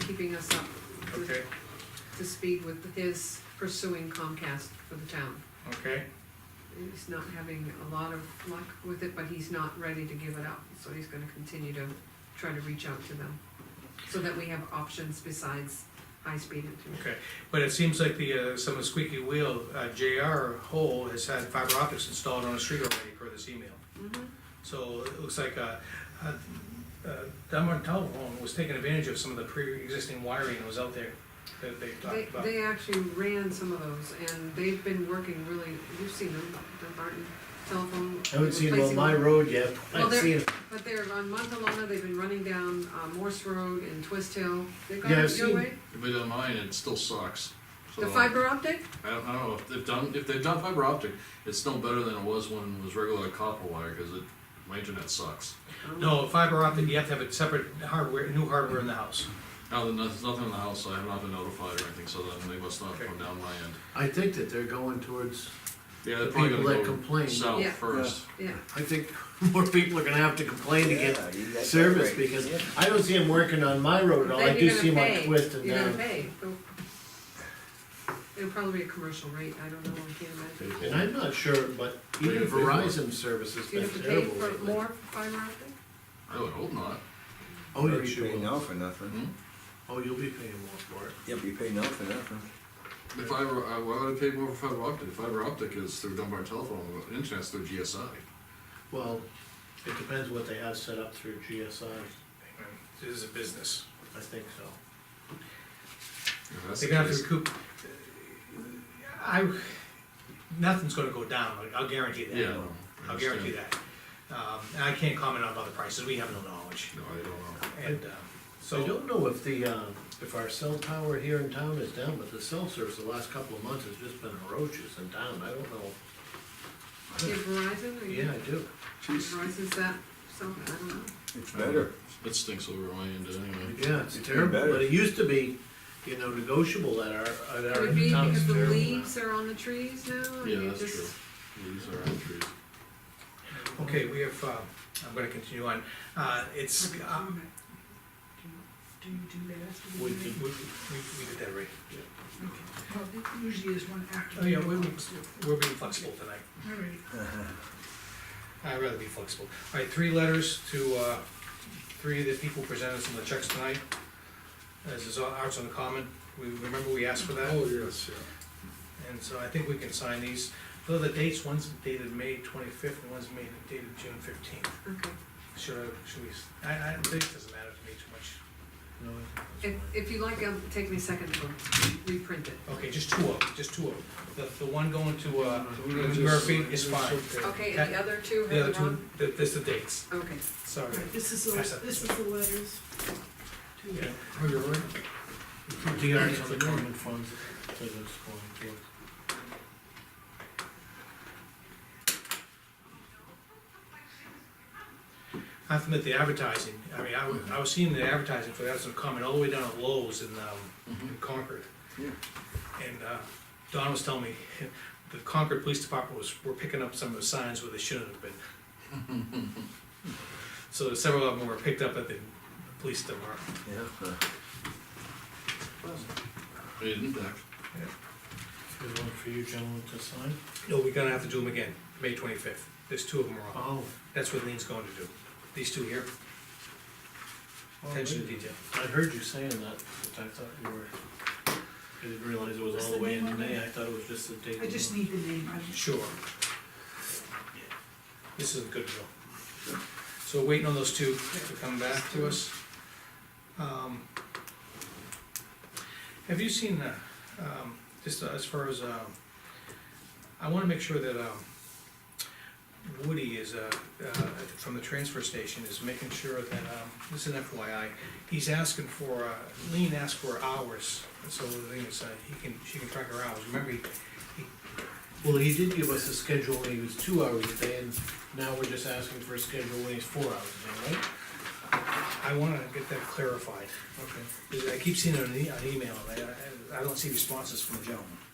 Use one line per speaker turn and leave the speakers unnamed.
keeping us up with-
Okay,
to speed with his pursuing Comcast for the town.
okay,
He's not having a lot of luck with it, but he's not ready to give it up, so he's gonna continue to try to reach out to them. So that we have options besides high-speed internet.
okay. But it seems like the, uh, some of the squeaky wheel, uh, JR Hole has had fiber optics installed on a street already per this email.
Mhm.
So it looks like, uh, uh, uh, Dunbar Telephone was taking advantage of some of the pre-existing wiring that was out there that they
They,
talked about.
they actually ran some of those, and they've been working really, you've seen them, the Barton telephone.
I haven't seen them on
replacing
my
them.
road yet,
Well,
I've
they're-
seen, 'em.
But they're on Montalona, they've been running down uh, Morse Road and Twist Hill. They've got
Yeah, I've
it your
seen-
way.
If they done mine, it still sucks.
The
So,
fiber optic?
I don't, I don't know, if they've done, if they've done fiber optic, it's still better than it was when it was regular copper wire, cause it, my internet sucks.
No, fiber optic, you have to have a separate hardware, new hardware in the house.
Now, there's noth- nothing in the house, so I have not been notified or anything, so then they must not
Okay.
come down my end.
I think that they're going towards,
Yeah, they're
The
probably
people that
gonna go
complain.
south
Yeah.
first.
Yeah,
I think more people are gonna have to complain to get
Yeah, you got that
service,
right.
because
Yeah.
I don't see them working on my road at all, I
Then
do
you're gonna
see them on
pay.
Twist and
You're gonna
down.
pay. Go- It'll probably be a commercial rate, I don't know, I can't imagine.
And I'm not sure, but
Pay
even
for it.
Verizon's service has
Do you
been
have to pay
terrible
for
lately.
more fiber optic?
I would hope not.
Oh,
Or
yeah,
you
you
pay
will,
now for nothing.
oh, you'll be paying more for it.
Yep, you pay now for nothing.
The fiber, I, why would I pay more for fiber optic? Fiber optic is through Dunbar telephone, but internet's through GSI.
Well, it depends what they have set up through GSI,
This is a business.
I think so.
If that's
They're
the
gonna have
case-
to recoup. I, nothing's gonna go down, like, I'll guarantee that.
Yeah. I
I'll guarantee
understand.
that. Um, and I can't comment on other prices, we have no knowledge,
No, I don't know.
and, um,
I
so,
don't know if the, uh, if our cell tower here in town is down, but the cell service the last couple of months has just been ferocious in town, I don't know.
Do you have Verizon, or you?
Yeah, I do.
Verizon's that, so, I don't know.
It's better.
It stinks over my end anyway.
Yeah, it's
It's been
terrible,
better.
but it used to be, you know, negotiable at our, at our
Could it be
town, it's
because the
terrible now.
leaves are on the trees now? and
Yeah,
you
that's
just-
true. These are our trees.
okay, we have, uh, I'm gonna continue on. Uh, it's, um,
Do you do that after the
We
we, we,
meeting?
we we did that right.
Okay. Well, it usually is one after.
Oh, yeah, we,
the
we,
meeting.
we're being flexible tonight,
All right.
I'd rather be flexible. All right, three letters to, uh, three of the people presented some of the checks tonight. This is Arts on the Common, we, remember we asked for that?
Oh, yes, yeah.
And so I think we can sign these, though the dates, one's dated May twenty-fifth and one's made dated June fifteenth.
Okay.
Should I, should we, s- I, I, it doesn't matter to me too much.
No,
If, if you like, it'll take me a second to reprint it.
Okay, just two of them, just two of them. The, the one going to, uh,
we're gonna Mm-hmm. just-
Murphy is fine.
Okay, and the other two,
The other
have them
two,
on?
th- this the dates,
Okay.
sorry.
All right, this is, the-
Pass that.
this is the letters. to-
Yeah.
Oh, The arts on the common funds, so it's going
I have to admit, the advertising, I mean, I was, I was seeing the advertising for Arts on the Common all the way down at Lowe's in, um, in Concord.
Yeah.
And, uh, Don was telling me, the Concord Police Department was, were picking up some of the signs where they shouldn't have been. So several of them were picked up at the police department.
Yeah.
It didn't back.
to, here's one for you gentlemen to sign.
No, we're gonna have to do them again, May twenty-fifth. There's two of them wrong.
Oh.
That's what Lean's going to do. These two here,
Oh,
attention to detail.
I heard you saying that, but I thought you were, I didn't realize it was
What's
all the
the
way
name
into
on it?
May, I thought it was just the date.
I just need the name, I just.
Sure. This is a good deal. So waiting on those two to come back to us. Um, Have you seen, uh, um, just as far as, um, I wanna make sure that, um, Woody is, uh, uh, from the transfer station is making sure that, um, this is an FYI, he's asking for, uh, Lean asked for hours, so the thing is, uh, he can, she can track her hours, remember, he
Well, he did give us a schedule when he was two hours a day, and now we're just asking for a schedule when he's four hours a day, right?
I wanna get that e, clarified. Okay. I keep seeing it in the- an email, and I, I don't see responses from the gentleman.